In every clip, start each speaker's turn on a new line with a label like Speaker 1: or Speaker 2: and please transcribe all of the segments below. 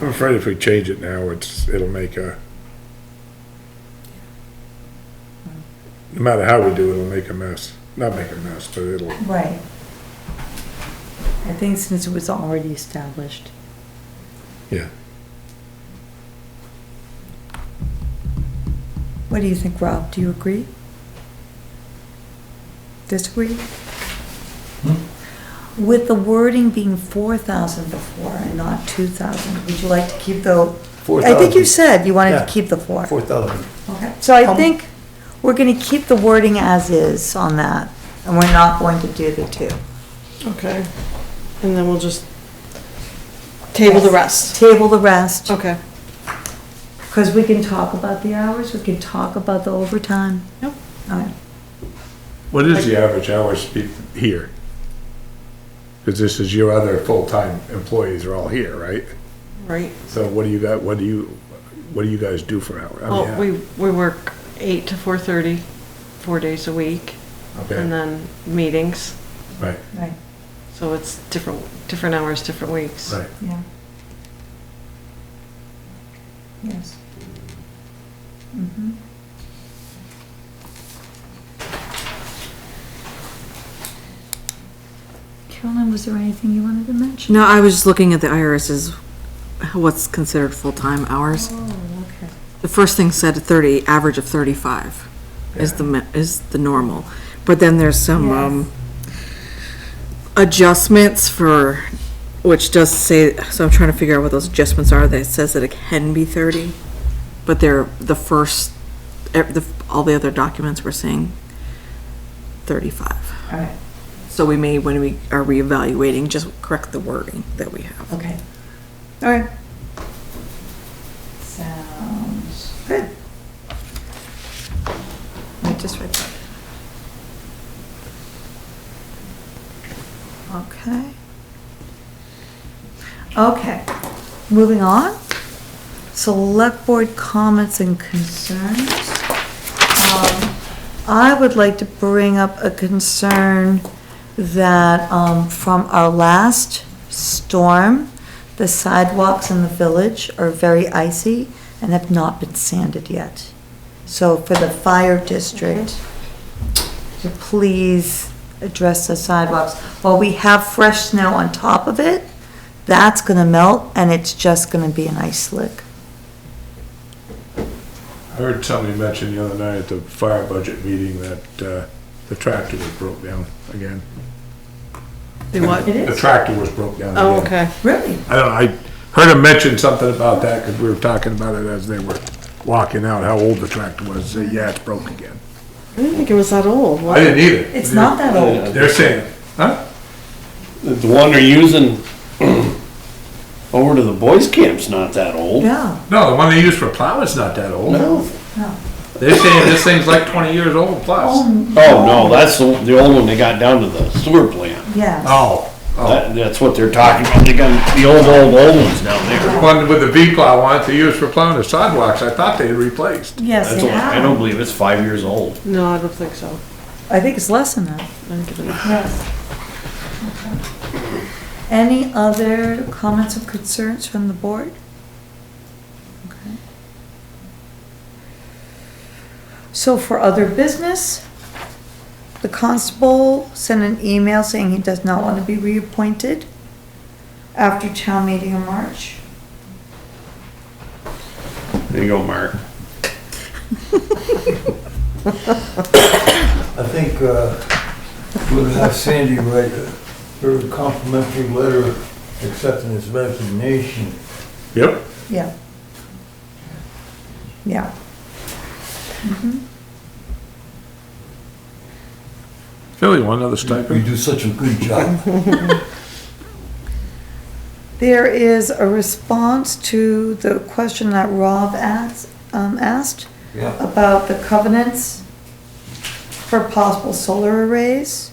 Speaker 1: I'm afraid if we change it now, it's, it'll make a, no matter how we do it, it'll make a mess. Not make a mess, but it'll,
Speaker 2: Right.
Speaker 3: I think since it was already established.
Speaker 1: yeah.
Speaker 3: What do you think, Rob? Do you agree? Disagree?
Speaker 2: With the wording being four thousand before and not two thousand, would you like to keep the,
Speaker 3: I think you said you wanted
Speaker 4: Yeah.
Speaker 2: to keep the four?
Speaker 4: Four thousand.
Speaker 2: Okay. So I
Speaker 3: Um,
Speaker 2: think we're gonna keep the wording as is on that, and we're not going to do the two.
Speaker 5: Okay. And then we'll just table the rest.
Speaker 2: Table the rest,
Speaker 5: Okay.
Speaker 2: because we can talk about the hours, we can talk about the overtime.
Speaker 5: Yep.
Speaker 2: All right.
Speaker 1: What is the average hours be- here? Because this is your other full-time employees are all here, right?
Speaker 5: Right.
Speaker 1: So what do you got, what do you, what do you guys do for hours? I
Speaker 5: Well, we,
Speaker 1: mean,
Speaker 5: we work eight to four thirty, four days a week, and uh,
Speaker 1: Okay,
Speaker 5: then meetings.
Speaker 1: right,
Speaker 2: Right,
Speaker 5: So it's different, different hours, different weeks.
Speaker 1: right.
Speaker 2: yeah. Yes. Mhm. Carolyn, was there anything you wanted to mention?
Speaker 6: No, I was just looking at the IRS's, what's considered full-time hours.
Speaker 2: Oh, okay.
Speaker 6: The first thing said thirty, average of thirty-five is the, mi- is the normal. But then there's some, um, adjustments for, which does say, so I'm trying to figure out what those adjustments are, that says that it can be thirty. But they're, the first, ev- the, all the other documents were saying thirty-five.
Speaker 2: All right,
Speaker 6: So we may, when we are reevaluating, just correct the wording that we have.
Speaker 2: okay. All right. Sounds good. I just read that. Okay. Okay, moving on. Select board comments and concerns. Um, I would like to bring up a concern that, um, from our last storm, the sidewalks in the village are very icy and have not been sanded yet. So for the fire district, to please address the sidewalks. While we have fresh snow on top of it, that's gonna melt and it's just gonna be an ice slick.
Speaker 1: I heard somebody mention the other night at the fire budget meeting that, uh, the tractor was broke down again.
Speaker 5: They what?
Speaker 1: The tractor was broke down again.
Speaker 5: Oh, okay.
Speaker 2: Really?
Speaker 1: I don't know, I heard him mention something about that, because we were talking about it as they were walking out, how old the tractor was, Say, yeah, it's broke again.
Speaker 5: I didn't think it was that old.
Speaker 1: I didn't either.
Speaker 2: It's not that
Speaker 7: Oh.
Speaker 2: old.
Speaker 1: They're saying, huh?
Speaker 7: The one they're using over to the boys' camp's not that old.
Speaker 2: Yeah,
Speaker 1: No, the one they use for plowing's not that old.
Speaker 7: No.
Speaker 1: They're saying this thing's like twenty years old plus.
Speaker 7: Oh, no, that's the, the old one they got down to the sewer plant.
Speaker 2: yeah.
Speaker 1: Oh, oh,
Speaker 7: That, that's what they're talking about. They got the old, old, old ones down
Speaker 1: the
Speaker 7: there.
Speaker 1: one with the V plow on it they use for plowing the sidewalks, I thought they had replaced.
Speaker 2: Yes,
Speaker 7: That's
Speaker 2: it
Speaker 7: what, I don't
Speaker 2: has.
Speaker 7: believe it's five years old.
Speaker 5: No, I don't think so.
Speaker 2: I think it's less than that.
Speaker 5: I think it is.
Speaker 2: Yes. Any other comments or concerns from the board? Okay. So for other business, the constable sent an email saying he does not want to be reappointed after town meeting in March.
Speaker 7: There you go, Mark.
Speaker 4: I think, uh, we'll have Sandy write a her complimentary letter accepting his resignation.
Speaker 1: Yep.
Speaker 2: Yeah. Yeah.
Speaker 1: Philly won another
Speaker 4: We
Speaker 1: stipend.
Speaker 4: do such a good job.
Speaker 2: There is a response to the question that Rob asked, um, asked
Speaker 4: Yeah.
Speaker 2: about the covenants for possible solar arrays.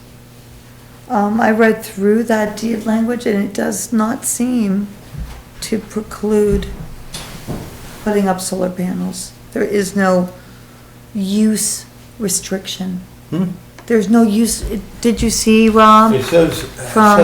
Speaker 2: Um, I read through that deed language and it does not seem to preclude putting up solar panels. There is no use restriction. There's no use, did you see, Rob?
Speaker 4: Hmm? It says,
Speaker 2: From-